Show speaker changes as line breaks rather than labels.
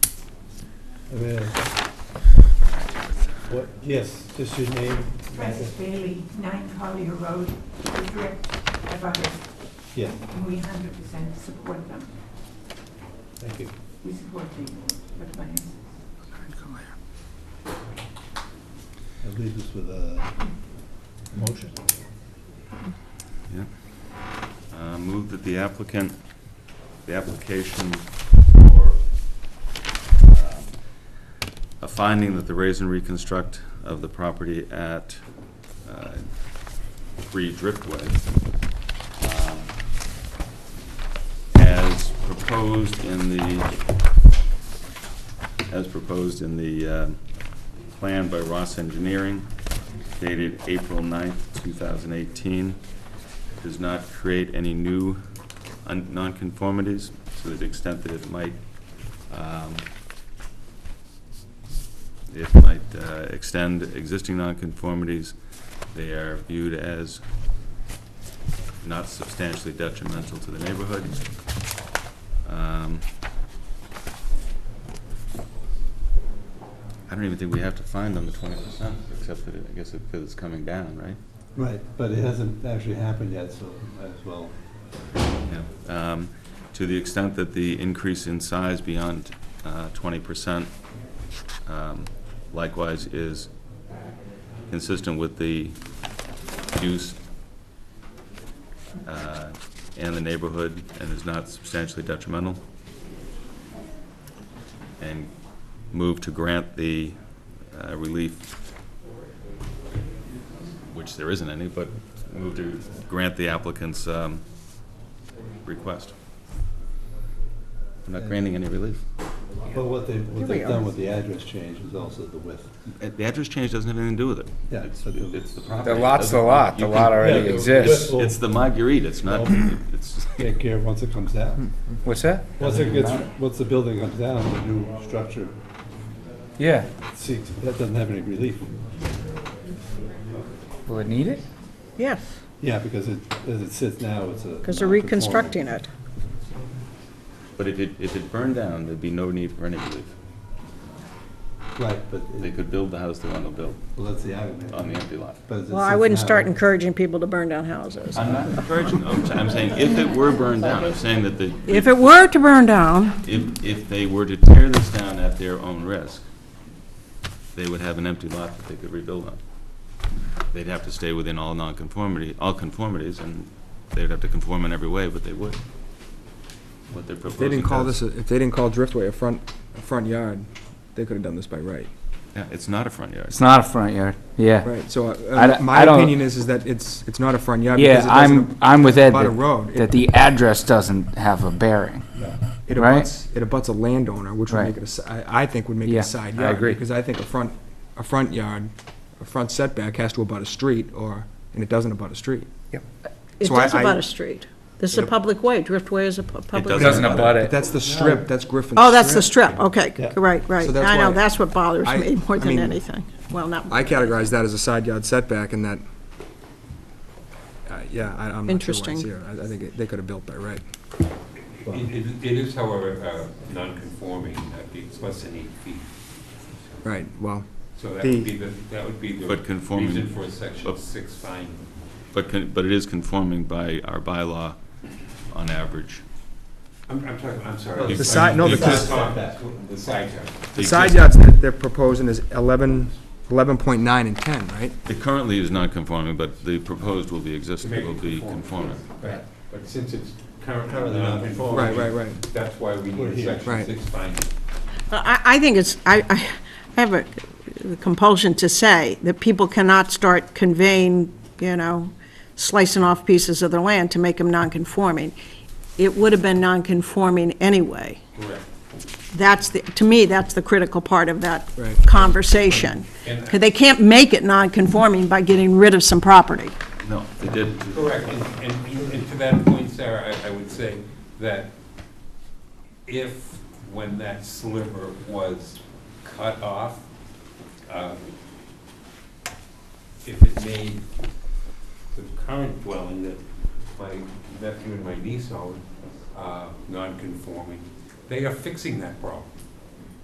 Amen. What, yes, just your name?
Francis Bailey, 9 Collier Road, Woodruff, Nevada.
Yeah,
And we 100% support them.
thank you.
We support the the plans.
That leaves us with a motion.
Uh, Move that the applicant, the application for uh, a finding that the raise and reconstruct of the property at uh, Three Driftway um, as proposed in the, as proposed in the uh, plan by Ross Engineering dated April 9th, 2018, does not create any new un- nonconformities to the extent that it might, um, it might uh, extend existing nonconformities. They are viewed as not substantially detrimental to the neighborhood. Um, I don't even think we have to find on the twenty percent, except that, it- I guess, because it's coming down, right?
Right, but it hasn't actually happened yet, so might as well.
Yeah, um, To the extent that the increase in size beyond uh, 20% um, likewise is consistent with the use uh, and the neighborhood and is not substantially detrimental. And move to grant the uh, relief, which there isn't any, but move to grant the applicant's um, request. I'm not granting any relief.
But what they, what
Here we
they've done
are.
with the address change is also the width.
Uh, The address change doesn't have anything to do with it.
Yeah, it's the-
It's the property.
The lot's the
Doesn't-
lot, the
you
lot
can-
already
Yeah,
exists.
the-
It's the Marguerite, it's not, it's,
Take care of once it comes
Hmm.
down.
What's that?
Once it gets, once the building comes down, the new structure
Yeah,
seeks, that doesn't have any relief.
will it need it?
Yes,
Yeah, because it, as it sits now, it's a.
because they're
non-conforming.
reconstructing it.
but if it, if it burned down, there'd be no need for any relief.
Right, but
They
it-
could build the house they want to build
well, that's the argument.
on the empty lot.
But as it
Well, I
sits
wouldn't
now-
start encouraging people to burn down houses.
I'm not encouraging, I'm, I'm saying if it were burned down, I'm saying that the,
If it were to burn down,
if, if they were to tear this down at their own risk, they would have an empty lot that they could rebuild on. They'd have to stay within all nonconformity, all conformities, and they'd have to conform in every way, but they would. What they're
If
proposing
they didn't call
does-
this, a- if they didn't call Driftway a front, a front yard, they could have done this by right.
Yeah, it's not a front yard.
It's not a front yard, yeah.
Right, so
I
uh,
don't-
my
I don't-
opinion is, is that it's, it's not a front yard. because
Yeah,
it
I'm,
doesn't-
I'm with Ed
abut
that
a road.
that the address doesn't have a bearing.
It
right.
abuts, it abuts a landowner, which would
Right.
make it a, si- I I think would make it
Yeah,
a side
I
yard.
agree.
Because I think a front, a front yard, a front setback has to abut a street, or, and it doesn't abut a street.
it
So I-
does
I-
about a street. This is a public way, Driftway is a pu- public.
doesn't
way.
abut abut
But that's the strip, that's Griffin's
Oh, that's the strip, okay,
Yeah.
right, right.
So that's
I know,
why-
that's what bothers
I-
me more
I
than
mean-
anything. Well, not,
I categorize that as a side yard setback, and that, uh, yeah, I- I'm not sure why
Interesting.
it's here. I I think it- they could have built by right.
It it is, however, uh, non-conforming, I think it's less than eight feet.
Right, well,
So that
The-
would be the, that would be the
But conforming-
reason for section
but-
six finding.
But, con- but it is conforming by our bylaw on average.
I'm, I'm talking, I'm
Well,
sorry.
The
side- no, the-
The side yard.
the side yards that they're proposing is 11, 11.9 and 10, right?
It currently is not conforming, but the proposed will be existing, will be conforming.
Right. But since it's currently
Currently non-conforming.
non-conforming.
Right, right, right.
That's why we
We're
need a
here.
section
Right.
six finding.
I, I think it's, I, I have a compulsion to say that people cannot start conveying, you know, slicing off pieces of their land to make them nonconforming. It would have been nonconforming anyway.
Correct.
That's the, to me, that's the critical part of that
Right.
conversation.
And-
'Cause they can't make it non-conforming by getting rid of some property.
No, they did.
Correct, and, and- and to that point, Sarah, I, I would say that if, when that sliver was cut off, um, if it made the current dwelling that my nephew and my niece own, uh, non-conforming, they are fixing that problem.